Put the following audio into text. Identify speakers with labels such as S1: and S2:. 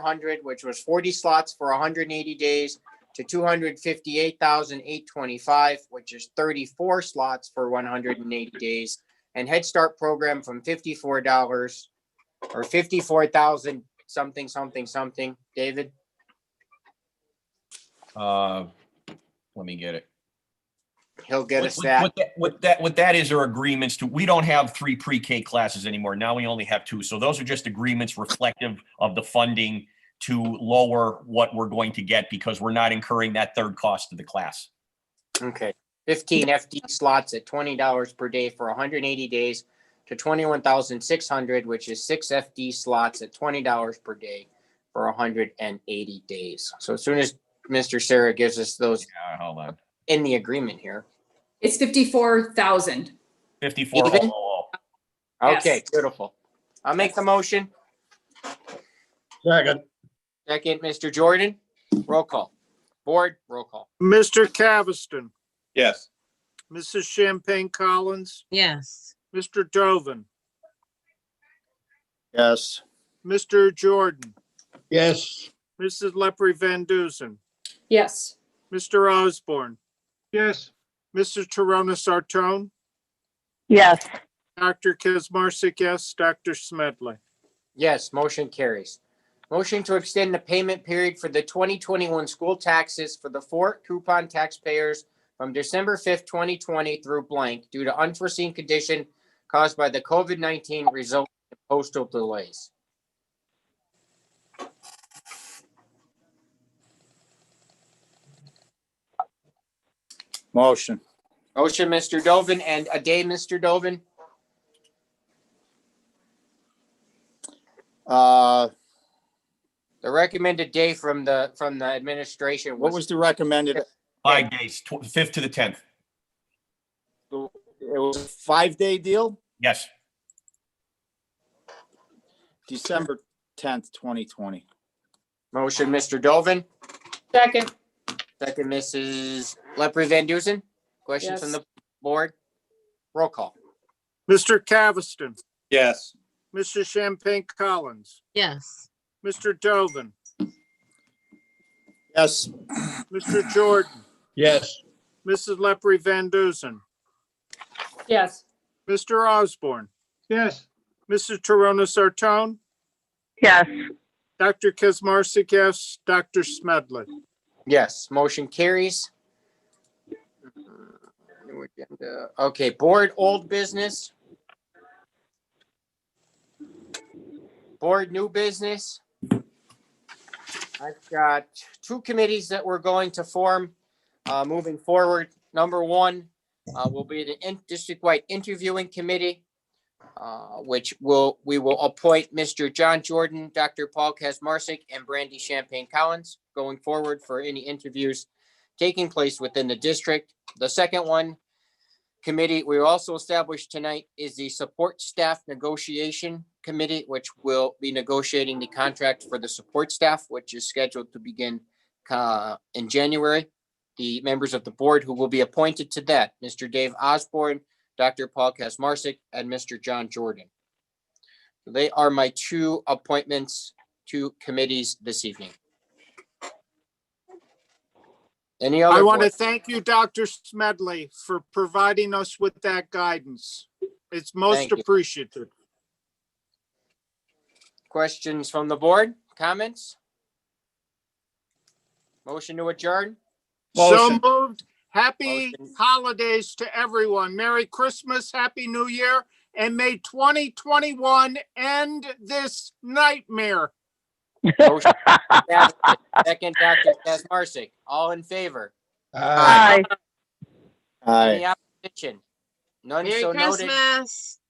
S1: hundred, which was forty slots for hundred and eighty days to two hundred fifty-eight thousand eight twenty-five, which is thirty-four slots for one hundred and eighty days. And Head Start program from fifty-four dollars or fifty-four thousand something, something, something. David,
S2: Uh, let me get it.
S1: he'll get
S2: What-
S1: us
S2: what-
S1: that.
S2: What that, what that, what that is are agreements to, we don't have three pre-K classes anymore. Now we only have two. So those are just agreements reflective of the funding to lower what we're going to get because we're not incurring that third cost of the class.
S1: Okay, fifteen FD slots at twenty dollars per day for hundred and eighty days to twenty-one thousand six hundred, which is six FD slots at twenty dollars per day for hundred and eighty days. So as soon as Mr. Sarah gives us those
S2: Uh, hold on.
S1: in the agreement here.
S3: It's fifty-four thousand.
S2: Fifty-four.
S1: Even?
S2: oh, oh,
S1: Okay,
S3: Yes.
S1: beautiful. I'll make the motion.
S4: Second.
S1: Second, Mr. Jordan, roll call. Board, roll call.
S4: Mr. Caviston,
S5: Yes.
S4: Mrs. Champagne Collins,
S6: yes,
S4: Mr. Dovin,
S5: Yes.
S4: Mr. Jordan,
S5: Yes.
S4: Mrs. Leprey Van Dusen,
S3: Yes,
S4: Mr. Osborne,
S5: Yes.
S4: Mrs. Torona Sartone,
S7: yes,
S4: Dr. Kesmarsik, yes, Dr. Smedley.
S1: Yes, motion carries. Motion to extend the payment period for the twenty twenty-one school taxes for the four coupon taxpayers from December fifth, twenty twenty through blank due to unforeseen condition caused by the COVID nineteen resulting in postal delays.
S5: Motion.
S1: Motion, Mr. Dovin, and a day, Mr. Dovin.
S5: Uh,
S1: The recommended day from the, from the administration
S5: what
S1: was
S5: was the recommended? It
S2: oh. Five days, tw- fifth to the tenth.
S5: was a five-day deal,
S2: Yes.
S5: December tenth, twenty twenty.
S1: motion, Mr. Dovin,
S3: second,
S1: second, Mrs. Leprey Van Dusen. Questions from
S3: Yes.
S1: the board? Roll call.
S4: Mr. Caviston,
S5: Yes.
S4: Mrs. Champagne Collins,
S6: yes,
S4: Mr. Dovin,
S5: Yes.
S4: Mr. Jordan,
S5: Yes.
S4: Mrs. Leprey Van Dusen,
S3: yes,
S4: Mr. Osborne,
S5: Yes.
S4: Mrs. Torona Sartone,
S7: yes,
S4: Dr. Kesmarsik, yes, Dr. Smedley.
S1: Yes, motion carries. New agenda. Okay, board old business. Board new business. I've got two committees that we're going to form uh, moving forward. Number one uh, will be the in- district-wide interviewing committee, uh, which will, we will appoint Mr. John Jordan, Dr. Paul Kazmarsik, and Brandy Champagne Collins going forward for any interviews taking place within the district. The second one committee we also established tonight is the Support Staff Negotiation Committee, which will be negotiating the contract for the support staff, which is scheduled to begin uh, in January. The members of the board who will be appointed to that, Mr. Dave Osborne, Dr. Paul Kazmarsik, and Mr. John Jordan. They are my two appointments to committees this evening. Any other?
S4: I want to
S1: board-
S4: thank you, Dr. Smedley, for providing us with that guidance. It's most
S1: Thank you.
S4: appreciated.
S1: Questions from the board? Comments? Motion to adjourn?
S4: So
S5: Motion.
S4: moved. Happy
S1: Motion.
S4: holidays to everyone. Merry Christmas, Happy New Year, and may 2021 end this nightmare.
S1: Motion to establish. Second, Dr. Kesmarsik, all in favor?
S7: aye.
S5: Aye.
S1: Any opposition? None
S6: Merry
S1: so noted.
S6: Christmas.